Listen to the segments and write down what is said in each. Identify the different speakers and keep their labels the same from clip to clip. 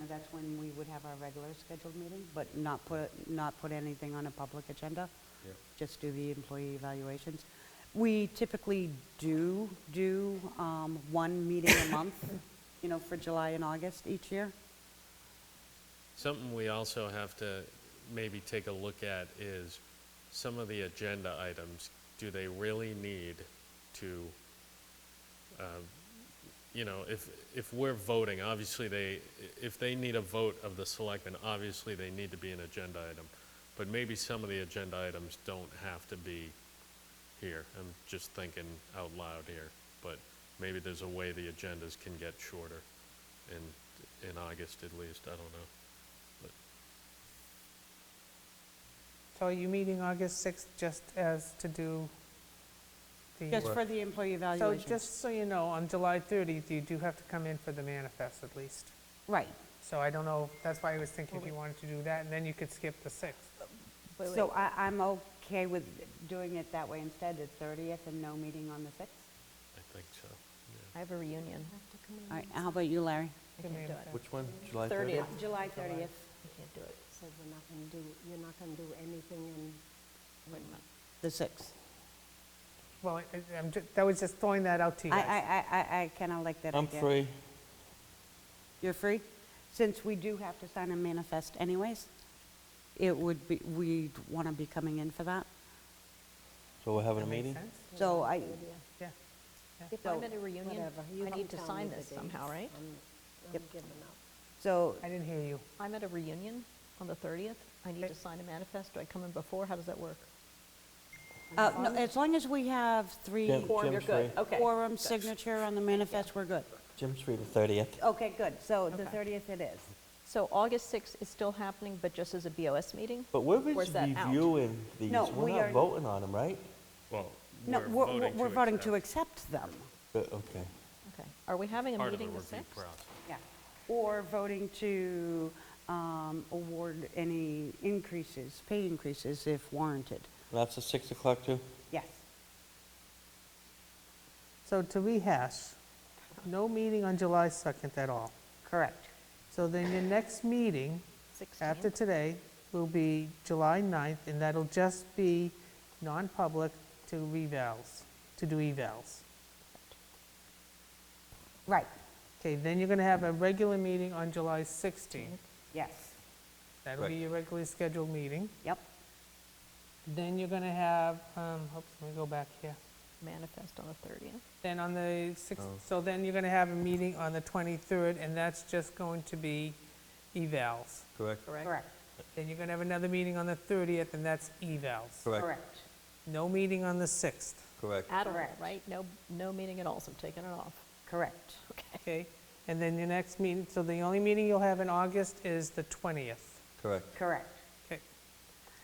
Speaker 1: Now, That's when we would have our regular scheduled meeting, but not put, not put anything on a public agenda,
Speaker 2: Yeah.
Speaker 1: just do the employee evaluations. We typically do, do um, one meeting a month, you know, for July and August each year.
Speaker 3: Something we also have to maybe take a look at is some of the agenda items, do they really need to, uh, you know, if, if we're voting, obviously they, if they need a vote of the selectmen, obviously they need to be an agenda item. But maybe some of the agenda items don't have to be here. I'm just thinking out loud here. But maybe there's a way the agendas can get shorter in, in August at least, I don't know.
Speaker 4: So are you meeting August 6th just as to do
Speaker 1: Just
Speaker 4: the...
Speaker 1: for the employee
Speaker 4: So
Speaker 1: evaluations.
Speaker 4: just so you know, on July 30th, you do have to come in for the manifest at least.
Speaker 1: Right.
Speaker 4: So I don't know, that's why I was thinking if you wanted to do that, and then you could skip the 6th.
Speaker 1: So I, I'm okay with doing it that way instead, the 30th and no meeting on the 6th.
Speaker 3: I think so, yeah.
Speaker 5: I have a reunion.
Speaker 1: All right, how about you, Larry?
Speaker 4: The
Speaker 5: I can't do it.
Speaker 4: manifest.
Speaker 2: Which one? July 30th?
Speaker 5: 30th,
Speaker 1: July 30th.
Speaker 5: I can't do it.
Speaker 6: said we're not going to do, you're not going to do anything in,
Speaker 5: Wait a minute.
Speaker 1: The 6th.
Speaker 4: Well, I- I- I'm, ju- that was just throwing that out to you
Speaker 1: I,
Speaker 4: guys.
Speaker 1: I, I, I kind of like that
Speaker 2: I'm
Speaker 1: idea.
Speaker 2: free.
Speaker 1: You're free? Since we do have to sign a manifest anyways, it would be, we'd want to be coming in for that.
Speaker 2: So we're having a
Speaker 4: That makes
Speaker 2: meeting?
Speaker 4: sense.
Speaker 1: So I,
Speaker 4: Yeah.
Speaker 5: If
Speaker 1: So,
Speaker 5: I'm at a reunion,
Speaker 6: whatever. You
Speaker 5: I
Speaker 6: can
Speaker 5: need to
Speaker 6: tell
Speaker 5: sign
Speaker 6: me the
Speaker 5: this somehow,
Speaker 6: dates.
Speaker 5: right?
Speaker 6: I'm- I'm giving up.
Speaker 1: so,
Speaker 4: I didn't hear you.
Speaker 5: I'm at a reunion on the 30th. I need to sign a manifest. Do I come in before? How does that work?
Speaker 1: uh, no, as long as we have three
Speaker 2: Jim- Quorum, you're Jim's good. free.
Speaker 5: Okay.
Speaker 1: quorum signature on the manifest, we're good.
Speaker 2: Jim's free the 30th.
Speaker 1: Okay, good. So the
Speaker 5: Okay.
Speaker 1: 30th it is.
Speaker 5: So August 6th is still happening, but just as a BOS meeting?
Speaker 2: But we're
Speaker 5: Or is
Speaker 2: just
Speaker 5: that out?
Speaker 2: reviewing these.
Speaker 1: No,
Speaker 2: We're
Speaker 1: we
Speaker 2: not
Speaker 1: are-
Speaker 2: voting on them, right?
Speaker 3: Well,
Speaker 1: No,
Speaker 3: we're
Speaker 1: we're,
Speaker 3: voting to
Speaker 1: we're voting to
Speaker 3: accept.
Speaker 1: accept them.
Speaker 2: Uh, Okay.
Speaker 5: Okay. Are we having a
Speaker 3: Part of
Speaker 5: meeting the
Speaker 3: review
Speaker 5: 6th?
Speaker 3: process.
Speaker 1: Yeah. Or voting to um, award any increases, pay increases if warranted.
Speaker 2: And that's at 6 o'clock too?
Speaker 1: Yes.
Speaker 4: So to rehash, no meeting on July 2nd at all.
Speaker 1: Correct.
Speaker 4: So then your next meeting
Speaker 5: 16th?
Speaker 4: after today will be July 9th, and that'll just be non-public to revals, to do evals.
Speaker 1: Right,
Speaker 4: Okay, then you're going to have a regular meeting on July 16th.
Speaker 1: yes.
Speaker 4: That'll be
Speaker 2: Right.
Speaker 4: your regularly scheduled meeting.
Speaker 1: Yep.
Speaker 4: Then you're going to have, um, oops, let me go back here.
Speaker 5: Manifest on the 30th.
Speaker 4: Then on the 6th,
Speaker 2: Oh.
Speaker 4: so then you're going to have a meeting on the 23rd, and that's just going to be evals.
Speaker 2: Correct.
Speaker 1: Correct,
Speaker 4: Then you're going to have another meeting on the 30th, and that's evals.
Speaker 1: correct.
Speaker 4: No meeting on the 6th,
Speaker 2: correct.
Speaker 5: At all,
Speaker 1: Correct.
Speaker 5: right? No, no meeting at all, so I'm taking it off.
Speaker 1: Correct.
Speaker 5: Okay.
Speaker 4: okay? And then your next meeting, so the only meeting you'll have in August is the 20th.
Speaker 2: Correct.
Speaker 1: Correct.
Speaker 4: Okay.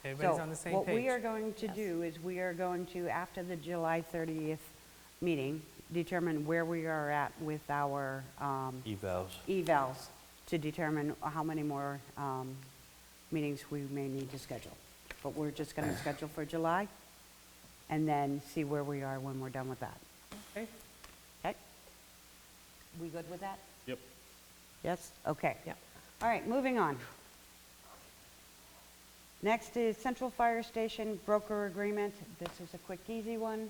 Speaker 4: Everybody's on the
Speaker 1: So
Speaker 4: same
Speaker 1: what we are
Speaker 4: page.
Speaker 1: going to
Speaker 5: Yes.
Speaker 1: do is we are going to, after the July 30th meeting, determine where we are at with our um,
Speaker 2: Evals.
Speaker 1: evals to determine how many more um, meetings we may need to schedule. But we're just going to schedule for July and then see where we are when we're done with that.
Speaker 4: Okay.
Speaker 1: Okay? We good with that?
Speaker 3: Yep.
Speaker 1: Yes? Okay.
Speaker 5: Yeah.
Speaker 1: All right, moving on. Next is Central Fire Station broker agreement. This is a quick, easy one.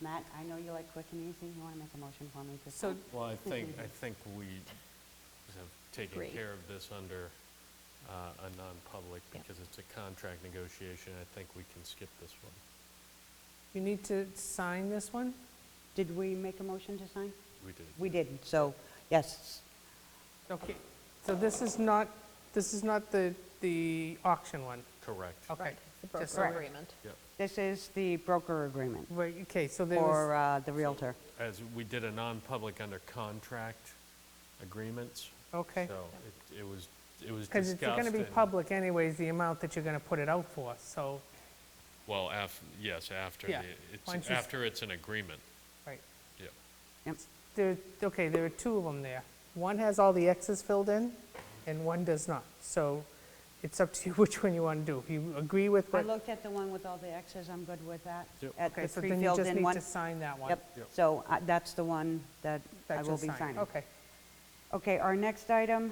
Speaker 1: Matt, I know you like quick and easy. You want to make a motion for me to
Speaker 4: So-
Speaker 1: sign?
Speaker 3: Well, I think, I think we have taken
Speaker 5: Agreed.
Speaker 3: care of this under uh, a non-public
Speaker 5: Yeah.
Speaker 3: because it's a contract negotiation. I think we can skip this one.
Speaker 4: You need to sign this one?
Speaker 1: Did we make a motion to sign?
Speaker 3: We did.
Speaker 1: We did, so, yes.
Speaker 4: Okay, so this is not, this is not the, the auction one?
Speaker 3: Correct.
Speaker 4: Okay.
Speaker 5: The
Speaker 4: Just
Speaker 5: broker
Speaker 4: so-
Speaker 5: agreement.
Speaker 3: Yep.
Speaker 1: This is the broker agreement
Speaker 4: Right, okay, so there
Speaker 1: for uh,
Speaker 4: was,
Speaker 1: the Realtor.
Speaker 3: As we did a non-public under contract agreements.
Speaker 1: uh,
Speaker 4: okay.
Speaker 3: So it- it was, it was discussed.
Speaker 4: Because it's going to be
Speaker 3: and-
Speaker 4: public anyways, the amount that you're going to put it out for, so,
Speaker 3: Well, af, yes, after,
Speaker 4: Yeah.
Speaker 3: the-
Speaker 4: Why don't
Speaker 3: it's,
Speaker 4: you s-
Speaker 3: after it's an agreement.
Speaker 4: right.
Speaker 3: Yep.
Speaker 1: Yep.
Speaker 4: There, okay, there are two of them there. One has all the X's filled in, and one does not. So it's up to you which one you want to do. If you agree with
Speaker 1: I
Speaker 4: what...
Speaker 1: looked at the one with all the X's, I'm good with that.
Speaker 3: Yep.
Speaker 1: At
Speaker 4: Okay,
Speaker 1: the
Speaker 4: so then you
Speaker 1: pre-filled
Speaker 4: just
Speaker 1: in
Speaker 4: need
Speaker 1: one.
Speaker 4: to sign that one.
Speaker 1: Yep,
Speaker 3: Yep.
Speaker 1: so uh, that's the one that
Speaker 4: That
Speaker 1: I
Speaker 4: you'll
Speaker 1: will be
Speaker 4: sign.
Speaker 1: signing.
Speaker 4: Okay.
Speaker 1: Okay, our next item